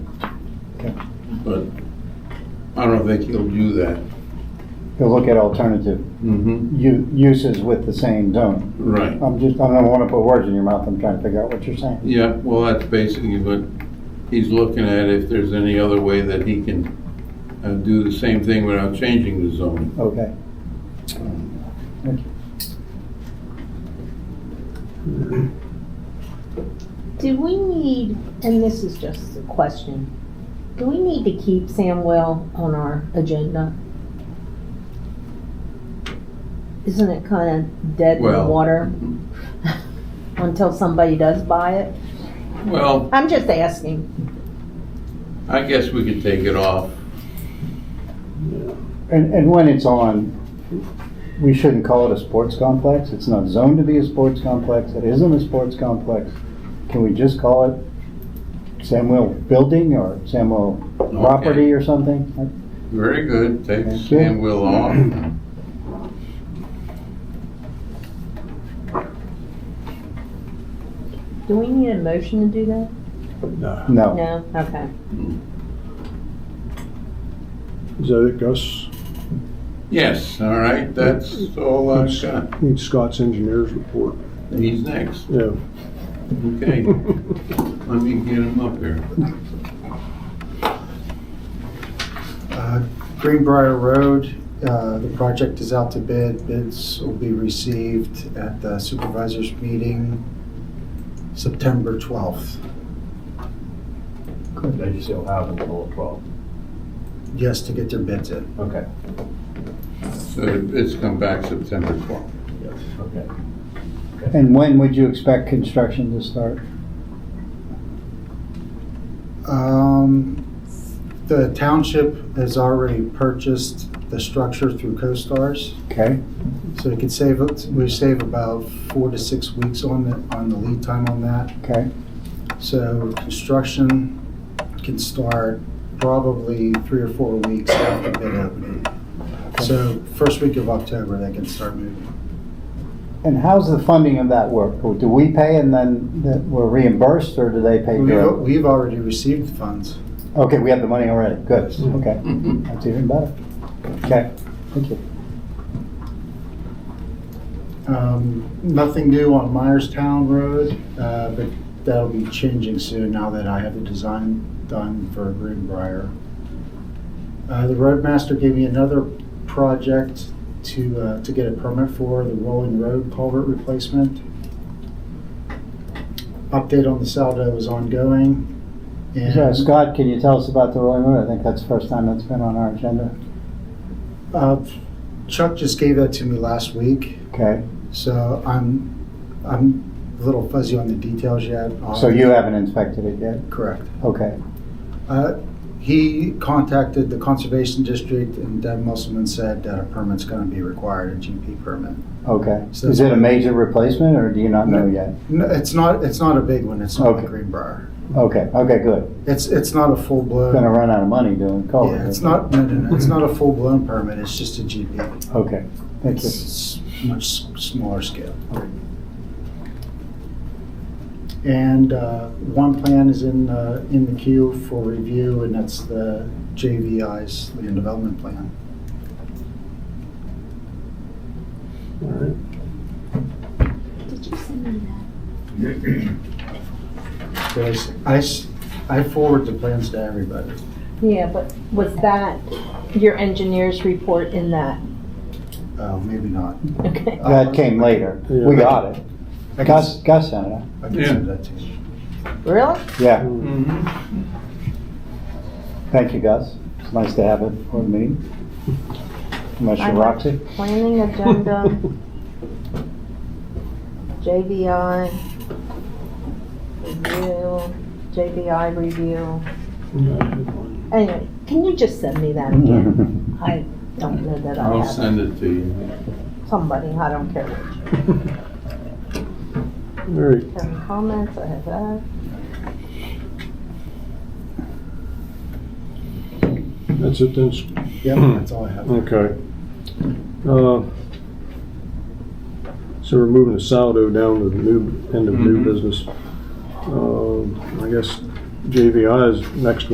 but I don't think he'll do that. He'll look at alternative Mm-hmm. u- uses with the same zone. Right, I'm just, I don't want to put words in your mouth, I'm trying to figure out what you're saying. yeah, well, that's basically what he's looking at, if there's any other way that he can uh, do the same thing without changing the zoning. Okay. Do we need, and this is just a question, do we need to keep Samwell on our agenda? Isn't it kind of dead in the Well- water until somebody does buy it? Well, I'm just asking. I guess we could take it off. And, and when it's on, we shouldn't call it a sports complex. It's not zoned to be a sports complex. It isn't a sports complex. Can we just call it Samuel Building or Samuel Property or something? Very good, take Thank you. Sam Will off. Do we need a motion to do that? No. No? Okay. Is that it, Gus? Yes, all right, that's all I've got. Need Scott's engineer's report. He's next, Yeah. okay. Let me get him up here. Uh, Greenbrier Road, uh, the project is out to bid. Bids will be received at the supervisors' meeting September 12th. They just don't have until twelve. Yes, to get their bids in. Okay. So it's come back September 12th. Yes. Okay. And when would you expect construction to start? Um, The township has already purchased the structure through CoStarz, Okay, so we could save, it- we save about four to six weeks on the, on the lead time on that. okay. So construction can start probably three or four weeks after bid opening. So first week of October, they can start moving. And how's the funding of that work? Do we pay and then that we're reimbursed or do they pay? We've, direct? we've already received funds. Okay, we have the money already. Good, okay. Mm-hmm. That's even better. Okay, thank you. Um, Nothing new on Myerstown Road, uh, but that'll be changing soon now that I have the design done for Greenbrier. Uh, The roadmaster gave me another project to, uh, to get a permit for, the Rolling Road culvert replacement. Update on the Saldo is ongoing. and- So Scott, can you tell us about the Rolling Road? I think that's the first time that's been on our agenda. Uh, Chuck just gave that to me last week, Okay, so I'm, I'm a little fuzzy on the details yet. so you haven't inspected it yet? Correct. Okay, Uh, He contacted the Conservation District and Deb Musselman said that a permit's going to be required, a GP permit. okay. So Is it a major replacement or do you not know yet? No, It's not, it's not a big one, it's not like Okay. Greenbrier. Okay, okay, good. It's, it's not a Gonna full-blown, run out of money doing culvert. yeah, it's not, no, no, no, it's not a full-blown permit, it's just a GP. Okay, thank you. It's much s- smaller scale. And uh, one plan is in, uh, in the queue for review, and that's the JVI's land development plan. All right. Did you send me that? Because I, s- I forward the plans to everybody. Yeah, but was that your engineer's report in that? Oh, maybe not. Okay. That came later. We got it. I can, Gus, s- Gus sent it. I can send that to you. Really? Yeah, Mhm. thank you, Gus. It's nice to have it for the meeting. Unless I you're have- Roxy. Planning agenda, JBI, review, JBI review. Anyway, can you just send me that again? I don't know that I I'll have send it to you. it. somebody, I don't care which. All right. Any comments, I have that. That's it then. Yep, that's all I have. Okay. Uh, So we're moving the saldo down to the new, end of new Mhm. business. Um, I guess JVI is next